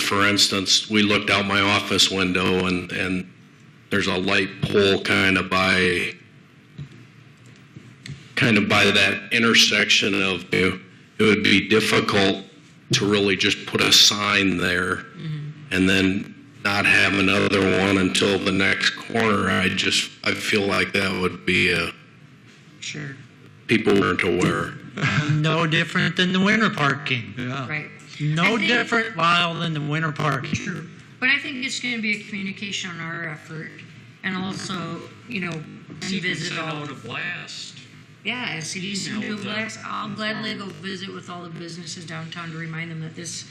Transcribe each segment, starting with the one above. for instance, we looked out my office window and, and there's a light pole kind of by, kind of by that intersection of, it would be difficult to really just put a sign there and then not have another one until the next corner. I just, I feel like that would be, uh, Sure. people weren't aware. No different than the winter parking. Right. I Oh. No think- different, Lyle, than the winter parking. Sure. But I think it's going to be a communication on our effort and also, you know, revisit Send all. out a blast. Yeah, if CDs can Email do a them. blast, I'll gladly go visit with all the businesses downtown to remind them that this,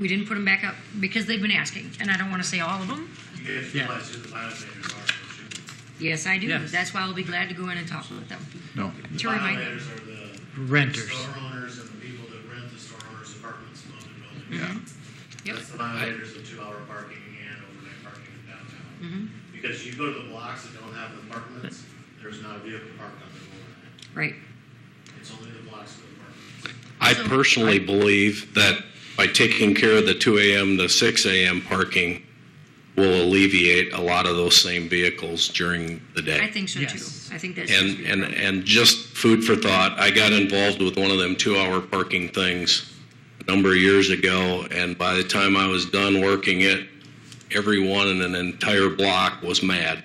we didn't put them back up because they've been asking. And I don't want to say all of them. If you realize who the violators are, should Yes, I do. Yes. That's why I'll be glad to go in and talk with them. No. To remind them. Violators are the Renters. store owners and the people that rent the store owners' apartments in other buildings. Yeah. Mm-hmm. Yep. That's the violators of two-hour parking and overnight parking in Mm-hmm. downtown. Because you go to the blocks that don't have apartments, there's not a vehicle parked on the Right. overnight. It's only the blocks with apartments. I personally believe that by taking care of the 2 AM to 6 AM parking will alleviate a lot of those same vehicles during the I day. think so too. Yes. I think that's. And, and, and just food for thought, I got involved with one of them two-hour parking things a number of years ago, and by the time I was done working it, everyone in an entire block was mad.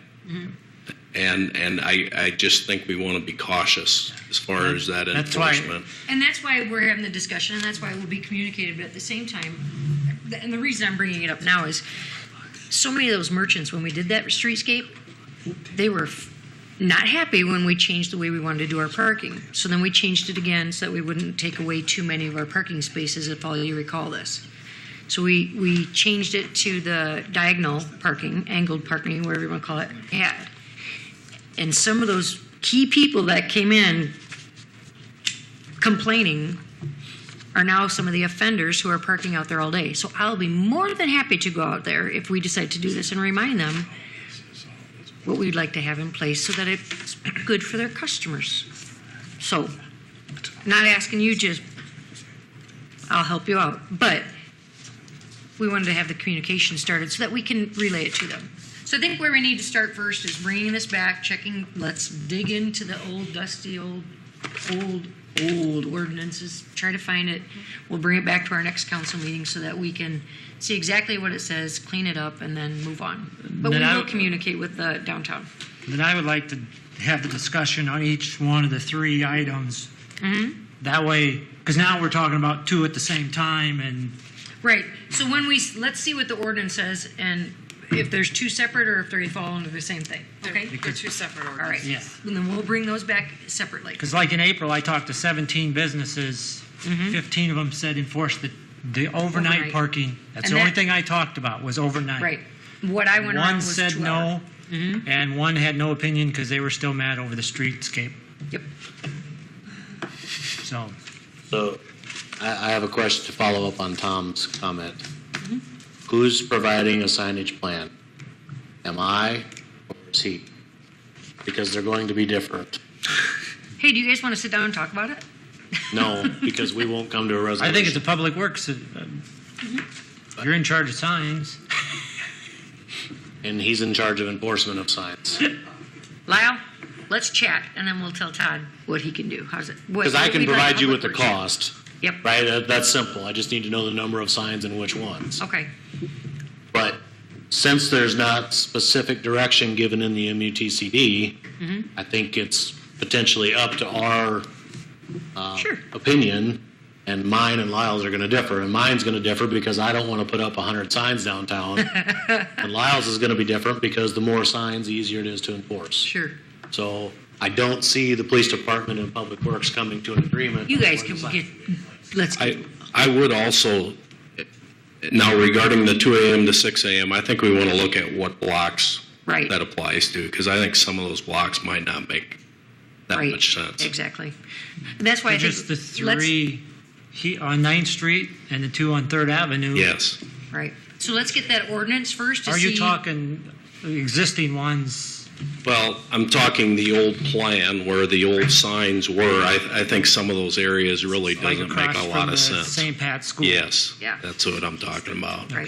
And, and I, I just think we want to be cautious as far as that That's why- enforcement. And that's why we're having the discussion, and that's why it will be communicated, but at the same time, and the reason I'm bringing it up now is, so many of those merchants, when we did that streetscape, they were f- not happy when we changed the way we wanted to do our parking. So then we changed it again so that we wouldn't take away too many of our parking spaces, if all you recall this. So we, we changed it to the diagonal parking, angled parking, whatever you want to call it, had. And some of those key people that came in complaining are now some of the offenders who are parking out there all day. So I'll be more than happy to go out there if we decide to do this and remind them what we'd like to have in place so that it's good for their customers. So, not asking you, just, I'll help you out. But we wanted to have the communication started so that we can relay it to them. So I think where we need to start first is bringing this back, checking, let's dig into the old dusty, old, old, old ordinances, try to find it. We'll bring it back to our next council meeting so that we can see exactly what it says, clean it up, and then move on. But we Then I- will communicate with the downtown. Then I would like to have the discussion on each one of the three items. Mm-hmm. That way, because now we're talking about two at the same time and Right. So when we, let's see what the ordinance says and if there's two separate or if they fall under the same thing. Okay? They're two separate All right. ordinances. Yeah. And then we'll bring those back separately. Because like in April, I talked to 17 businesses. 15 of them said enforce the, the overnight, Mm-hmm. Overnight. parking. That's And the only that- thing I talked about was overnight. Right. What I went around One was said two Mm-hmm. no, hour. and one had no opinion because they were still mad over the streetscape. Yep. So So I, I have a question to follow up on Tom's comment. Who's providing a signage plan? Am I or is he? Because they're going to be different. Hey, do you guys want to sit down and talk about it? No, because we won't come to a resolution. I think it's a public works. uh, Mm-hmm. You're in charge of signs. And he's in charge of enforcement of signs. Lyle, let's chat and then we'll tell Todd what he can do. How's it? Because I can provide you with the cost, Yep. right? That- That's simple. I just need to know the number of signs and which ones. Okay. But since there's not specific direction given in the MUTCD, I think it's potentially up to our Sure. opinion, and mine and Lyle's are going to differ. And mine's going to differ because I don't want to put up 100 signs downtown. and Lyle's is going to be different because the more signs, the easier it is to enforce. Sure. So I don't see the police department and public works coming to an agreement. You guys on can the sign. get, let's, I, I would also, now regarding the 2 AM to 6 AM, I think we want to look at what blocks right. that applies to, because I think some of those blocks might not make that right. much sense. Exactly. That's why I think. Just the let's- three he- on 9th Street and the two on 3rd Avenue. Yes. Right. So let's get that ordinance first to Are see. you talking existing ones Well, I'm talking the old plan where the old signs were. I, I think some of those areas really Like doesn't make across a lot from the of sense. St. Pat's School. Yes. Yeah. That's what I'm talking about. Right.